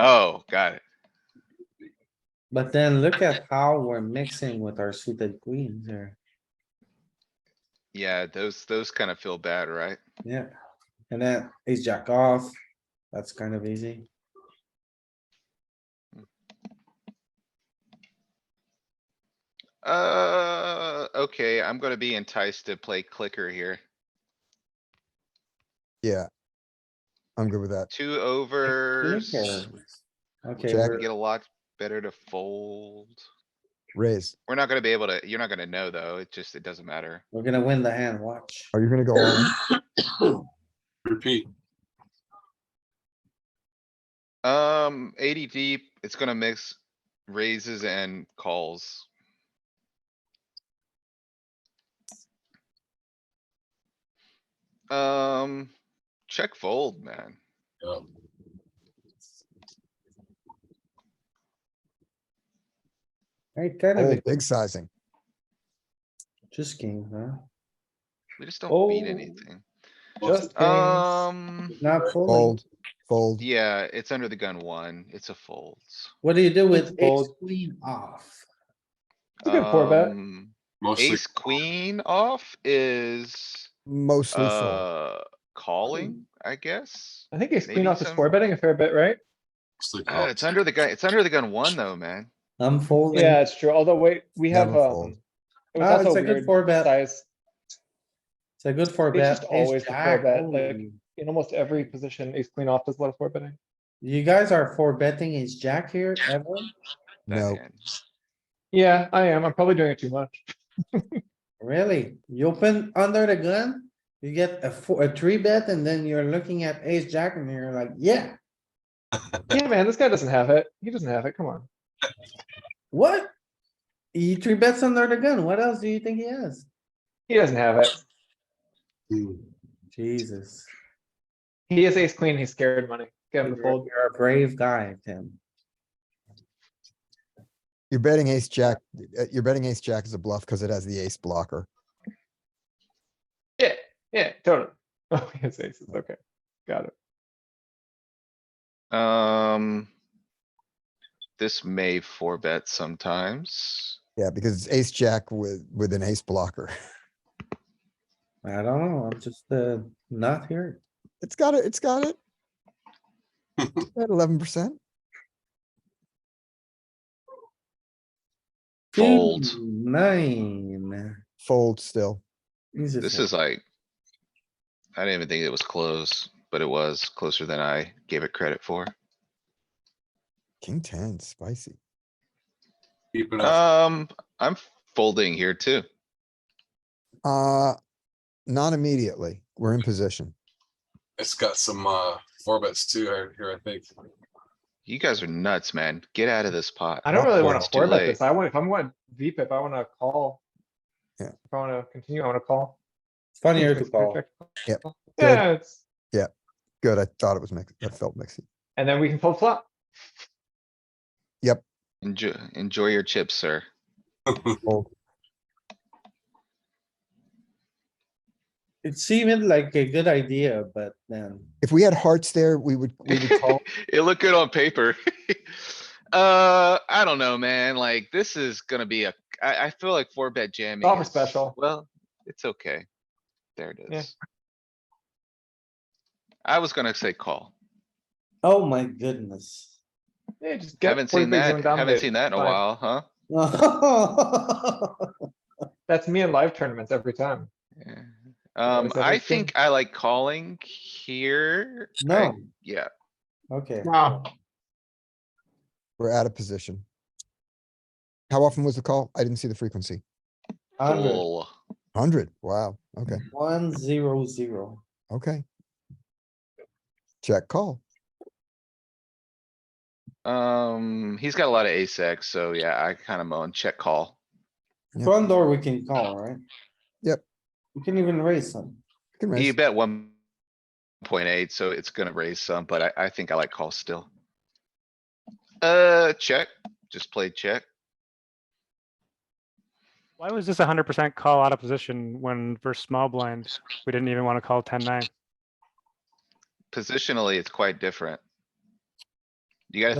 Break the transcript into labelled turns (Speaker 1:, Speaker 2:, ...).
Speaker 1: Oh, Got it.
Speaker 2: But then look at how we're mixing with our suited queens here.
Speaker 1: Yeah, those, those kind of feel bad, right?
Speaker 2: Yeah, and then ace jack off. That's kind of easy.
Speaker 1: Uh, okay, I'm gonna be enticed to play clicker here.
Speaker 3: Yeah. I'm good with that.
Speaker 1: Two overs.
Speaker 2: Clicker. Okay,
Speaker 3: Jack-
Speaker 2: we're-
Speaker 1: Get a lot better to fold.
Speaker 3: Raise.
Speaker 1: We're not gonna be able to, you're not gonna know though. It just, it doesn't matter.
Speaker 2: we're gonna win the hand, watch.
Speaker 3: Are you gonna go all in?
Speaker 4: Repeat.
Speaker 1: Um, eighty deep, it's gonna mix raises and calls. Um, check fold, man.
Speaker 4: Yeah.
Speaker 2: Right, kind
Speaker 3: Oh,
Speaker 2: of
Speaker 3: big sizing.
Speaker 2: just king, huh?
Speaker 1: We just don't beat
Speaker 2: Oh.
Speaker 1: anything.
Speaker 2: Just kings,
Speaker 1: Um,
Speaker 2: not folding.
Speaker 3: Fold, fold.
Speaker 1: yeah, it's under the gun one. It's a folds.
Speaker 2: What do you do with ace
Speaker 5: Fold.
Speaker 2: queen off?
Speaker 5: It's a good four bet.
Speaker 1: Um,
Speaker 4: Mostly,
Speaker 1: Ace queen off is,
Speaker 3: Mostly fold.
Speaker 1: uh, calling, I guess.
Speaker 5: I think ace
Speaker 1: Maybe
Speaker 5: queen off is
Speaker 1: some-
Speaker 5: four betting a fair bit, right?
Speaker 4: mostly
Speaker 1: Uh, it's
Speaker 4: calls.
Speaker 1: under the gun, it's under the gun one though, man.
Speaker 2: I'm folding.
Speaker 5: Yeah, it's true. Although wait, we have,
Speaker 3: Never fold.
Speaker 5: um. It
Speaker 2: Ah,
Speaker 5: was
Speaker 2: it's
Speaker 5: also
Speaker 2: a good
Speaker 5: weird
Speaker 2: four bet.
Speaker 5: size
Speaker 2: It's a good four
Speaker 5: It's
Speaker 2: bet.
Speaker 5: just
Speaker 2: ace
Speaker 5: always the four
Speaker 2: jack,
Speaker 5: bet,
Speaker 2: holy.
Speaker 5: like- in almost every position. Ace queen off does a lot of four betting.
Speaker 2: You guys are four betting ace jack here ever?
Speaker 1: that
Speaker 3: No,
Speaker 1: hand.
Speaker 5: Yeah, I am. I'm probably doing it too much.
Speaker 2: Really? You open under the gun? You get a four, a three bet and then you're looking at ace jack and you're like, yeah,
Speaker 5: Yeah, man, this guy doesn't have it. He doesn't have it. Come on.
Speaker 2: what? He three bets under the gun. What else do you think he has?
Speaker 5: He doesn't have it.
Speaker 4: Hmm.
Speaker 2: Jesus,
Speaker 5: He is ace queen. He's scared money. Get him to
Speaker 2: you're
Speaker 5: fold.
Speaker 2: you're a brave guy, Tim.
Speaker 3: You're betting ace jack, uh, you're betting ace jack is a bluff because it has the ace blocker.
Speaker 5: Yeah, yeah, totally. Oh, he has aces. Okay, got it.
Speaker 1: Um. This may four bet sometimes.
Speaker 3: Yeah, because it's ace jack with, with an ace blocker.
Speaker 2: I don't know, I'm just, uh, not here.
Speaker 3: It's got it, it's got it. At eleven percent.
Speaker 1: Fold.
Speaker 2: Two, Nine.
Speaker 3: Fold still.
Speaker 2: He's a
Speaker 1: This
Speaker 2: fool.
Speaker 1: is like. I didn't even think it was close, but it was closer than I gave it credit for.
Speaker 3: King ten, spicy.
Speaker 4: Keep it up.
Speaker 1: Um, I'm folding here too.
Speaker 3: Uh, not immediately. We're in position.
Speaker 4: It's got some, uh, four bets too here, here, I think.
Speaker 1: You guys are nuts, man. Get out of this pot.
Speaker 5: I don't really want
Speaker 1: It's
Speaker 5: to
Speaker 1: too
Speaker 5: four bet
Speaker 1: late.
Speaker 5: this. I want, if I'm going VPIP, I want to call.
Speaker 3: Yeah.
Speaker 5: If I want to continue, I want to call.
Speaker 2: Funnier to
Speaker 5: Check,
Speaker 2: call.
Speaker 5: check,
Speaker 3: Yep.
Speaker 5: call.
Speaker 3: Good.
Speaker 5: Yeah, it's,
Speaker 3: Good, I thought it was mixed, I felt mixy.
Speaker 5: and then we can fold flop.
Speaker 1: Enjoy, enjoy your chips, sir.
Speaker 2: It seemed like a good idea, but then,
Speaker 3: If we had hearts there, we would, we would call.
Speaker 1: It looked good on paper. Uh, I don't know, man. Like, this is gonna be a, I, I feel like four bet jamming.
Speaker 5: Golfer
Speaker 1: is-
Speaker 5: special.
Speaker 1: Well, it's okay. There it
Speaker 5: Yeah.
Speaker 1: is. I was gonna say call.
Speaker 2: oh my goodness.
Speaker 5: Yeah, just get.
Speaker 1: Haven't
Speaker 5: 40
Speaker 1: seen
Speaker 5: bigs and
Speaker 1: that, haven't
Speaker 5: dominate.
Speaker 1: seen that in a
Speaker 5: Fine.
Speaker 1: while, huh?
Speaker 5: That's me in live tournaments every time.
Speaker 1: Yeah.
Speaker 5: Yeah,
Speaker 1: Um,
Speaker 5: it's a
Speaker 1: I
Speaker 5: hard thing.
Speaker 1: think I like calling here. I-
Speaker 2: No,
Speaker 1: Yeah,
Speaker 2: okay.
Speaker 5: Wow.
Speaker 3: We're out of position. How often was the call? I didn't see the frequency.
Speaker 2: Hundred,
Speaker 1: full.
Speaker 3: Hundred, wow, okay,
Speaker 2: one, zero, zero.
Speaker 3: okay. Check call.
Speaker 1: Um, he's got a lot of ace X, so yeah, I kinda moan, check call.
Speaker 3: Yeah.
Speaker 2: Front door, we can call, right?
Speaker 3: Yep.
Speaker 2: We can even raise some.
Speaker 3: Good
Speaker 1: You
Speaker 3: raise.
Speaker 1: bet one point eight, so it's gonna raise some, but I, I think I like call still. Uh, check, just played check.
Speaker 6: Why was this a hundred percent call out of position when versus small blind, we didn't even want to call ten nine?
Speaker 1: Positionally, it's quite different. You gotta